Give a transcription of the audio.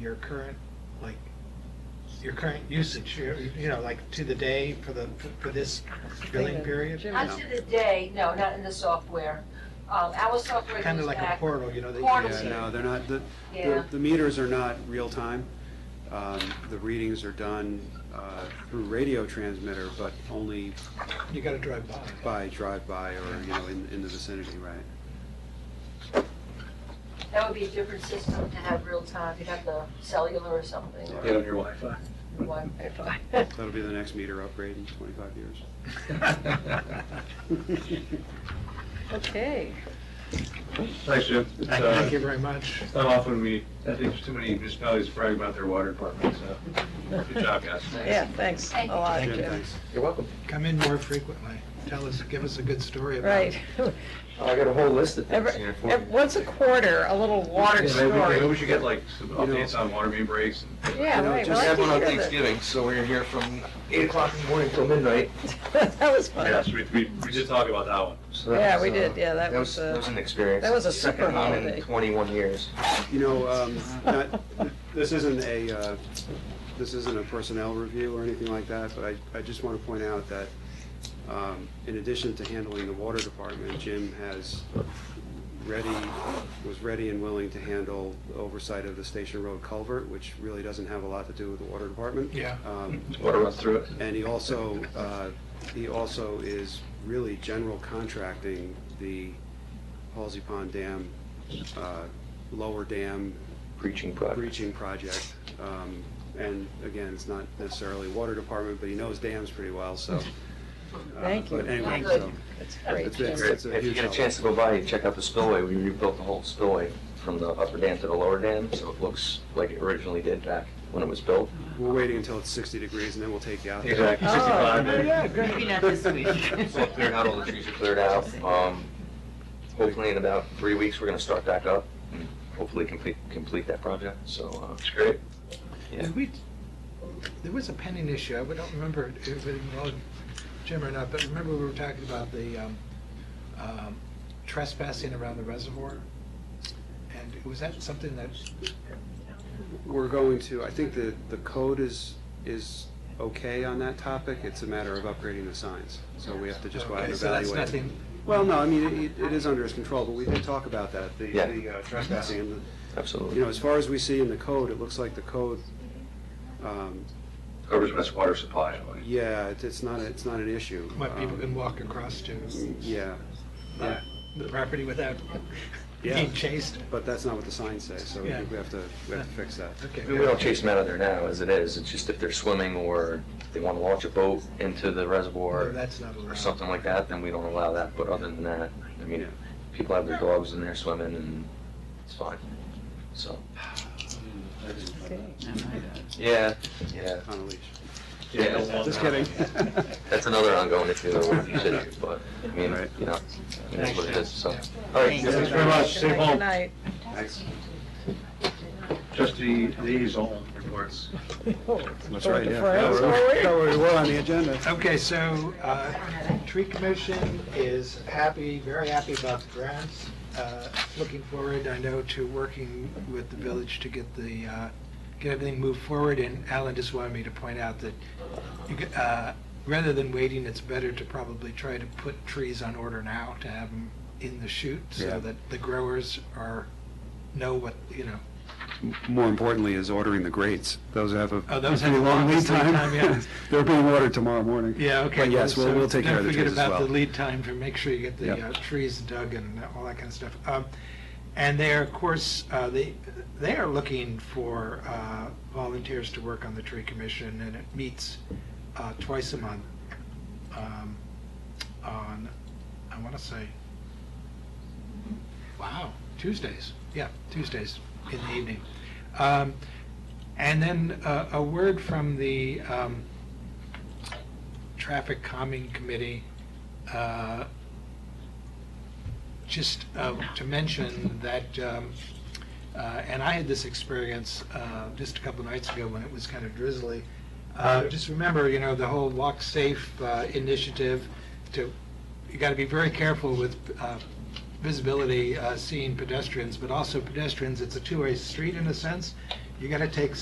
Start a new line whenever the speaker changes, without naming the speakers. your current, like, your current usage, your- you know, like to the day for the, for this billing period?
Not to the day, no, not in the software. Um, Our software
Kind of
goes
like a
back,
portal, you know, that you
Portal.
can
Yeah.
say.
no, they're not, the, the-
Yeah.
the meters are not real-time. Um, The readings are done uh, through radio transmitter, but only
You gotta drive by.
by drive-by or, you know, in, in the vicinity, right?
that would be a different system to have real time, you'd have the cellular or something, or
Get on your Wi-Fi.
Wi-Fi.
That'll be the next meter upgrade in 25 years.
Okay.
Thanks, Jim. It's, uh,
Thank you very much.
It's not often we, I think there's too many municipalities brag about their water department, so good job, guys.
Yeah, thanks a
Thank you.
lot,
Jim,
Jim.
thanks.
You're welcome.
Come in more frequently. Tell us, give us a good story about.
Right.
I got a whole list of
Every-
here for
ev-
you.
Once a quarter, a little water
Yeah, maybe- Maybe
story.
we should get like some updates on water main breaks and
Yeah,
You know,
right.
just
well, I
have
can
one on
hear that.
Thanksgiving, so we're here from eight o'clock in the morning till midnight.
That was
Yeah,
fun.
so we, we, we did talk about that one.
So that
Yeah,
was,
we
uh,
did, yeah, that was,
That
uh,
was an experience.
that was a
Second
super
one
holiday.
in Twenty-one years.
You know, um, not- this isn't a, uh, this isn't a personnel review or anything like that, but I, I just want to point out that um, in addition to handling the water department, Jim has ready, was ready and willing to handle oversight of the Station Road culvert, which really doesn't have a lot to do with the water department.
Yeah.
Um,
Water runs through it.
and he also, uh, he also is really general contracting the Halsey Pond Dam, uh, lower dam
Preaching project.
breaching project. Um, And again, it's not necessarily water department, but he knows dams pretty well, so. uh,
Thank you.
But anyway,
Thank
so
you.
That's
it's,
great,
it's
Jim.
it's a
If you
huge
get a
help.
chance to go by, you check out the spillway. We rebuilt the whole spillway from the upper dam to the lower dam, so it looks like it originally did back when it was built.
We're waiting until it's 60 degrees and then we'll take you out. there.
Exactly.
Oh,
65
yeah, yeah,
maybe.
good.
Maybe not this week.
So cleared out, all the trees are cleared out. Um, Hopefully in about three weeks, we're gonna start back up and hopefully complete, complete that project, so, uh,
It's great.
yeah.
Did we, there was a pending issue, I don't remember if it involved Jim or not, but remember we were talking about the um, um, trespassing around the reservoir? And was that something that,
We're going to, I think the, the code is, is okay on that topic. It's a matter of upgrading the signs. So we have to just go out and
okay,
evaluate.
so that's nothing,
Well, no, I mean, it, it is under his control, but we did talk about that, the,
Yeah.
the uh, trespassing. and the- You
Absolutely.
know, as far as we see in the code, it looks like the code, um,
Covers West Water Supply. I believe.
yeah, it's- it's not, it's not an issue.
what people
Um,
can walk across to
Yeah, yeah,
the property without
Yeah.
being chased?
but that's not what the signs say, so I
Yeah.
think we have to, we have to fix that.
Okay.
We don't chase them out of there now, as it is, it's just if they're swimming or they wanna launch a boat into the
No,
reservoir
That's not allowed.
or something like that, then we don't allow that, but other than that, I mean, people have their dogs in there swimming and it's fine, so.
Okay.
Yeah, yeah,
On a leash.
Yeah.
Just kidding.
that's another ongoing issue, that we're gonna consider, but, I mean,
Right.
you know, it is what it is, so. All right,
Thanks.
Thanks very much. Stay
Good
home.
night.
Thanks.
Trustee Lee's own reports.
That's
Going
right,
to
yeah.
France,
No, we're-
are we?
no, we're- we're on the agenda.
Okay, so, uh, tree commission is happy, very happy about the grants. Uh, Looking forward, I know, to working with the village to get the, uh, get everything moved forward. And Alan just wanted me to point out that, you could, uh, rather than waiting, it's better to probably try to put trees on order now to have them in the chute
Yeah.
so that the growers are, know what, you know,
More importantly is ordering the grates. Those have a
Oh, those have
pretty
the
long lead
longest lead
time.
time, yeah.
They're being ordered tomorrow morning.
Yeah, okay.
But yes, we'll,
so
we'll take care of the trees as
Don't forget about the
well.
lead time for, make sure you get the
Yeah.
uh, trees dug and all that kind of stuff. Um, And they are, of course, uh, they, they are looking for uh, volunteers to work on the tree commission, and it meets uh, twice a month um, on, I want to say, wow, Tuesdays, yeah, Tuesdays in the evening. Um, And then uh, a word from the um, Traffic Calming Committee, uh, just uh, to mention that, um, uh, and I had this experience uh, just a couple nights ago when it was kind of drizzly. Uh, Just remember, you know, the whole Walk Safe uh, initiative to, you got to be very careful with uh, visibility, uh, seeing pedestrians, but also pedestrians, it's a two-way street in a sense. you're gonna take